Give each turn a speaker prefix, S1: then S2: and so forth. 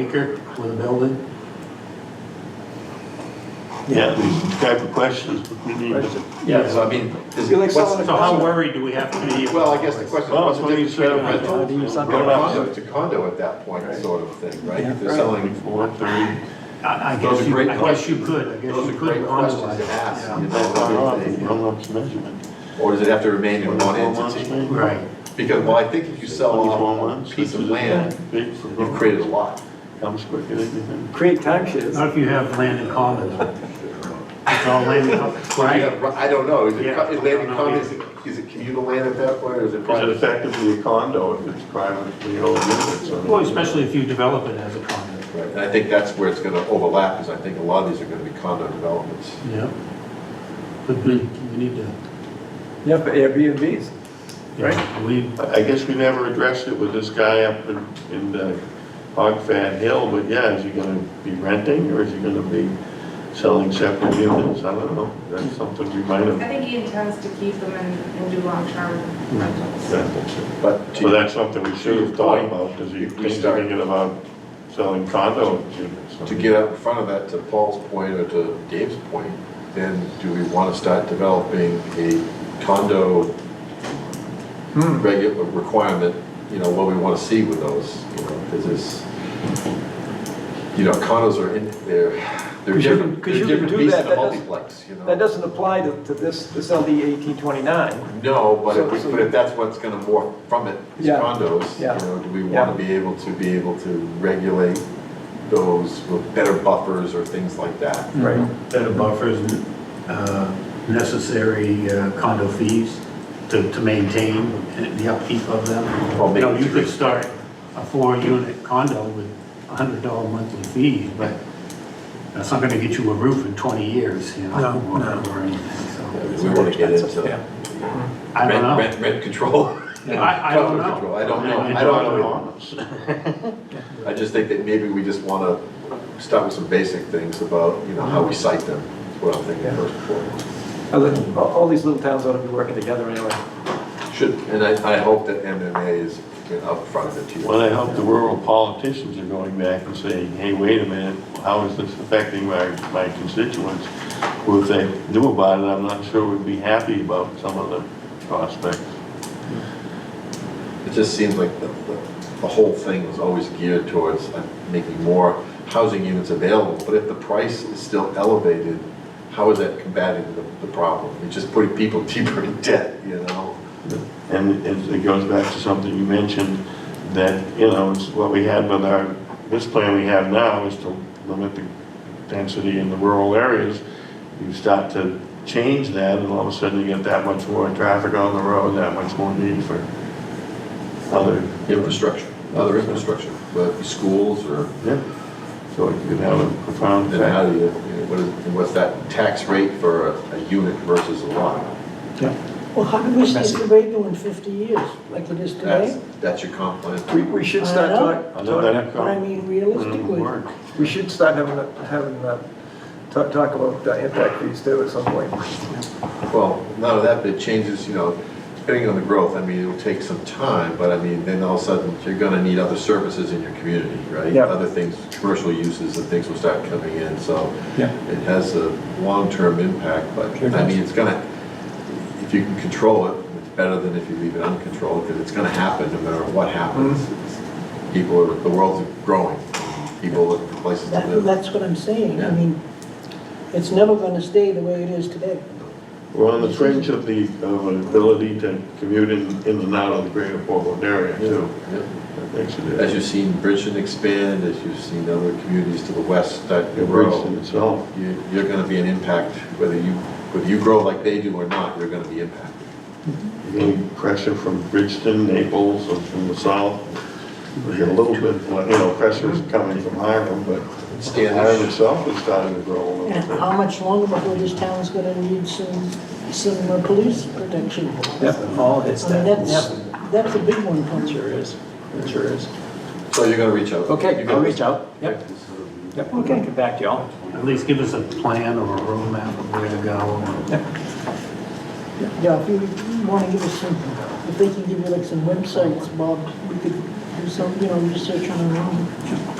S1: acre for the building?
S2: Yeah, these type of questions. we need.
S3: Yeah, so I mean, is
S4: You like
S3: it,
S4: selling
S3: what's,
S4: a
S1: So how
S4: condo?
S1: worried do we have to be?
S4: Well, I guess the question
S2: Well,
S4: is,
S2: it's when you
S4: what's the
S2: said,
S4: difference
S2: uh,
S4: between rental
S2: you
S4: and
S2: something
S4: condo to condo at that point, sort of thing, right? If they're selling,
S2: Twenty-four, thirty,
S1: I I
S3: Those
S1: guess,
S3: are
S1: you-
S3: great
S1: I guess you could, I guess
S4: those are
S1: you could
S4: great questions to
S1: quantify.
S4: ask, you
S2: that's not
S4: know,
S2: up,
S4: everything.
S2: run up's measurement.
S4: Or does it have to remain in one
S2: Twenty-four months,
S4: entity?
S2: maybe?
S1: Right,
S4: Because, well, I think if you sell
S2: Twenty-four
S4: off
S2: months.
S4: a uh, piece of
S2: which is
S4: land,
S2: big for
S4: you've
S2: both.
S4: created a lot.
S2: Comes quicker than you think.
S5: create timeshares.
S1: not if you have land in common. It's all land in common, right?
S4: Yeah, I don't know, is it,
S1: Yeah.
S4: co- is land in common, is it, is it communal land at that point, or is it
S2: Is it
S4: private?
S2: effectively a condo if it's privately owned units? I mean,
S1: Well, especially if you develop it as a common.
S4: Right, And I think that's where it's gonna overlap, because I think a lot of these are gonna be condo developments.
S1: yeah. But we, we need to,
S5: Yeah, for Airbnbs.
S1: right, we,
S2: I I guess we never addressed it with this guy up in, in uh, Hog Fan Hill, but yeah, is he gonna be renting or is he gonna be selling separate units? I don't know, that's something we might
S6: I
S2: have.
S6: think he intends to keep them and, and do long-term rentals.
S4: But to
S2: So that's something we should have thought about, does he,
S4: We
S2: he's
S4: start-
S2: thinking about selling condo units?
S4: to get out in front of that, to Paul's point or to Dave's point, then do we want to start developing a condo
S5: Hmm.
S4: regular requirement, you know, what we want to see with those, you know, because it's, you know, condos are in, they're, they're
S5: 'Cause you can-
S4: different,
S5: 'cause
S4: they're
S5: you can
S4: different
S5: do
S4: beasts
S5: that.
S4: than a
S5: That doesn't-
S4: multiplex, you know.
S5: That doesn't apply to, to this, this LD eighteen twenty-nine.
S4: No, but if, we-
S5: So- so-
S4: but if that's what's gonna morph from it, is
S5: Yeah.
S4: condos, you
S5: Yeah.
S4: know, do we wanna be able to, be able to regulate those with better buffers or things like that?
S5: Right.
S1: better buffers, uh, necessary uh, condo fees to, to maintain and the upkeep of them.
S4: Well,
S1: You know,
S4: maybe
S1: you could start a four-unit condo with a hundred dollar monthly fees, but that's not gonna get you a roof in twenty years, you know?
S5: No,
S1: or-
S5: no.
S1: Or anything,
S4: We want to get into rent,
S1: so, I don't know.
S4: rent, rent control.
S1: I, I don't
S4: Condo
S1: know.
S4: control, I don't know, I don't know. I just think that maybe we just want to start with some basic things about, you know, how
S2: Mm-hmm.
S4: we cite them, is what I'm thinking first and foremost.
S5: All, all these little towns ought to be working together anyway.
S4: Should, and I, I hope that MMA is you know, up front of it too.
S2: Well, I hope the rural politicians are going back and saying, hey, wait a minute, how is this affecting my, my constituents? Well, if they knew about it, I'm not sure we'd be happy about some of the prospects.
S4: It just seems like the, the, the whole thing was always geared towards uh, making more housing units available. But if the price is still elevated, how is that combating the, the problem? It's just putting people deeper in debt, you know?
S2: And it it goes back to something you mentioned, that, you know, it's what we had with our, this plan we have now is to limit the density in the rural areas. You start to change that, and all of a sudden you get that much more traffic on the road, that much more need for other
S4: Infrastructure, other infrastructure, whether it be schools or
S2: Yeah, so it could have a profound
S4: Then how
S2: effect.
S4: do you, what is, what's that tax rate for a- a unit versus a lot?
S7: Well, how do we see the radio in 50 years, like it is
S4: That's,
S7: today?
S4: that's your comp plan.
S5: We, we should start
S7: I know.
S2: I
S5: talking,
S2: know that
S7: But I mean, realistically,
S2: work.
S5: we should start having, a- having, uh, talk, talk about the impact fees too at some point.
S4: Well, none of that, but it changes, you know, depending on the growth, I mean, it'll take some time, but I mean, then all of a sudden, you're gonna need other services in your community, right?
S5: Yeah.
S4: Other things, commercial uses and things will start coming in, so
S5: Yeah.
S4: it has a long-term impact, but I mean, it's gonna, if you can control it, it's better than if you leave it uncontrolled, because it's gonna happen no matter what happens. It's- People are, the world's growing, people look for places to
S7: that-
S4: live.
S7: that's what I'm saying.
S4: Yeah.
S7: I mean, it's never going to stay the way it is today.
S2: We're on the fringe of the, of an ability to commute in, in and out of the greater Portland area too.
S4: Yep.
S2: That makes it-
S4: As you've seen Bridgeton expand, as you've seen other communities to the west start to
S2: It breaks in
S4: grow,
S2: itself.
S4: you- you're gonna be an impact, whether you, whether you grow like they do or not, you're gonna be impacted.
S2: You're getting pressure from Bridgeton, Naples, or from the south. We get a little bit, you know, pressure's coming from Hiram, but
S4: Standish.
S2: Hiram itself is starting to grow a little
S7: And
S2: bit.
S7: how much longer before this town's going to need some, some uh, police protection?
S5: Yep, all hits
S7: I mean, that's, that's a big one for me.
S5: is, it sure is.
S4: So you're gonna reach out.
S5: Okay,
S4: You're
S5: I'll
S4: gonna-
S5: reach out. Yep, yep, we'll get back to y'all.
S1: At least give us a plan or a roadmap of where to go.
S7: Yeah, if you want to give us some, if they can give you like some websites, Bob, we could do some, you know, research on our own.